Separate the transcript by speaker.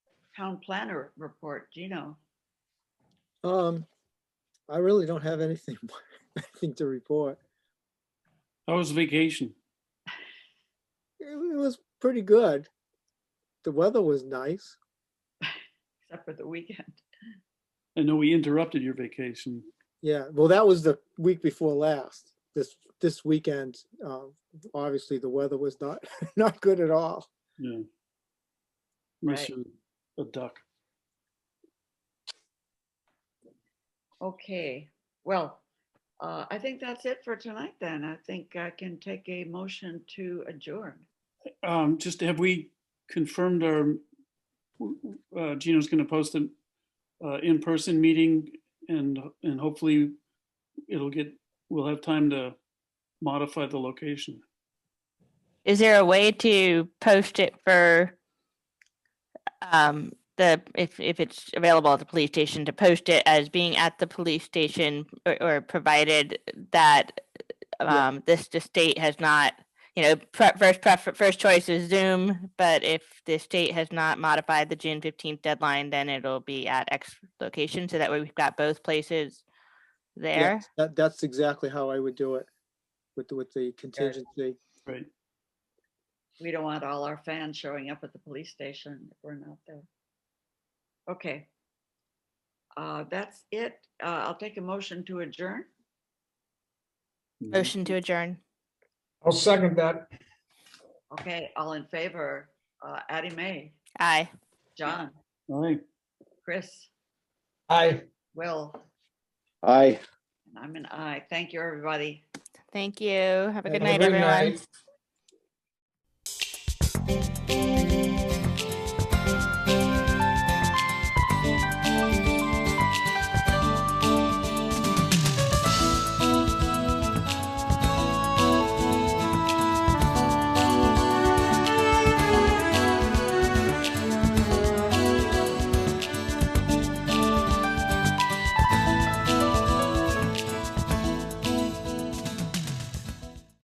Speaker 1: town planner report, Gino.
Speaker 2: Um, I really don't have anything, anything to report.
Speaker 3: How was vacation?
Speaker 2: It it was pretty good. The weather was nice.
Speaker 1: except for the weekend.
Speaker 3: I know we interrupted your vacation.
Speaker 2: Yeah, well, that was the week before last. This, this weekend, uh, obviously the weather was not, not good at all.
Speaker 3: Yeah. Unless
Speaker 1: Right.
Speaker 3: you're A duck.
Speaker 1: Okay, well, uh, I think that's it for tonight then. I think I can take a motion to adjourn.
Speaker 3: Um, just have we confirmed our, uh, Gino's gonna post an, uh, in-person meeting and, and hopefully it'll get, we'll have time to modify the location.
Speaker 4: Is there a way to post it for um, the, if, if it's available at the police station, to post it as being at the police station or, or provided that
Speaker 2: Yeah.
Speaker 4: um, this, the state has not, you know, pre- first prefer, first choice is Zoom, but if the state has not modified the June fifteenth deadline, then it'll be at X location, so that way we've got both places there.
Speaker 2: Yes, That, that's exactly how I would do it with, the- with the contingency.
Speaker 3: Right.
Speaker 1: We don't want all our fans showing up at the police station if we're not there. Okay. Uh, that's it. Uh, I'll take a motion to adjourn.
Speaker 4: Motion to adjourn.
Speaker 5: I'll second that.
Speaker 1: Okay, all in favor, uh, Addie May,
Speaker 4: Aye.
Speaker 1: John,
Speaker 3: All right.
Speaker 1: Chris,
Speaker 5: Aye.
Speaker 1: Will,
Speaker 6: Aye.
Speaker 1: and I'm an I. Thank you, everybody.
Speaker 4: Thank you. Have a
Speaker 2: Have
Speaker 4: good
Speaker 2: a
Speaker 4: night,
Speaker 5: good
Speaker 4: everyone.
Speaker 5: night.